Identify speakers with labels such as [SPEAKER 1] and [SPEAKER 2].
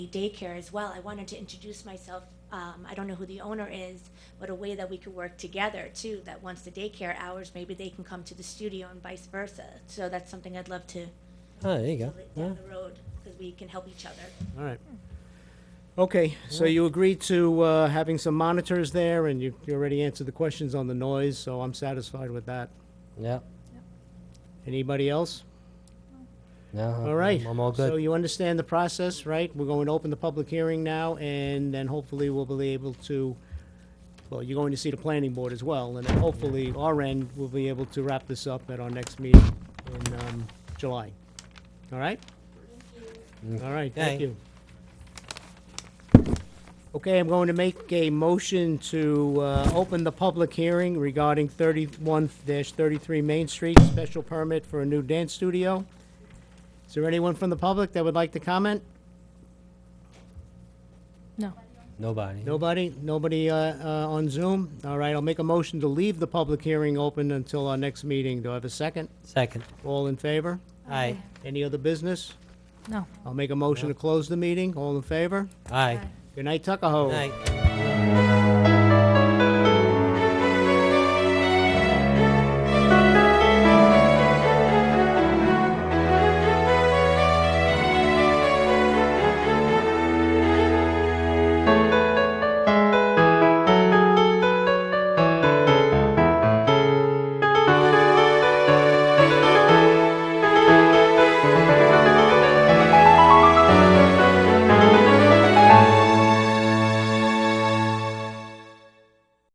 [SPEAKER 1] daycare as well. I wanted to introduce myself. Um, I don't know who the owner is, but a way that we could work together too. That once the daycare hours, maybe they can come to the studio and vice versa. So that's something I'd love to
[SPEAKER 2] Oh, there you go.
[SPEAKER 1] down
[SPEAKER 2] Yeah.
[SPEAKER 1] the road because we can help each other.
[SPEAKER 2] All right.
[SPEAKER 3] Okay, so you agreed to uh, having some monitors there, and you you already answered the questions on the noise, so I'm satisfied with that.
[SPEAKER 2] Yeah.
[SPEAKER 3] Anybody else?
[SPEAKER 2] No. I'm-
[SPEAKER 3] All right.
[SPEAKER 2] I'm all
[SPEAKER 3] So
[SPEAKER 2] good.
[SPEAKER 3] you understand the process, right? We're going to open the public hearing now, and then hopefully we'll be able to, well, you're going to see the planning board as well, and then hopefully our end, we'll be able to wrap this up at our next meeting in um, July. All right? All right, thank
[SPEAKER 2] Okay.
[SPEAKER 3] you. Okay, I'm going to make a motion to uh, open the public hearing regarding 31-33 Main Street, special permit for a new dance studio. Is there anyone from the public that would like to comment?
[SPEAKER 4] No.
[SPEAKER 2] Nobody.
[SPEAKER 3] Nobody? Nobody uh, uh, on Zoom? All right, I'll make a motion to leave the public hearing open until our next meeting. Do I have a second?
[SPEAKER 2] Second.
[SPEAKER 3] All in favor?
[SPEAKER 2] Aye.
[SPEAKER 3] Any other business?
[SPEAKER 4] No.
[SPEAKER 3] I'll make a motion to close the meeting. All in favor?
[SPEAKER 2] Aye.
[SPEAKER 3] Good night, Tuckahoe.
[SPEAKER 2] Night.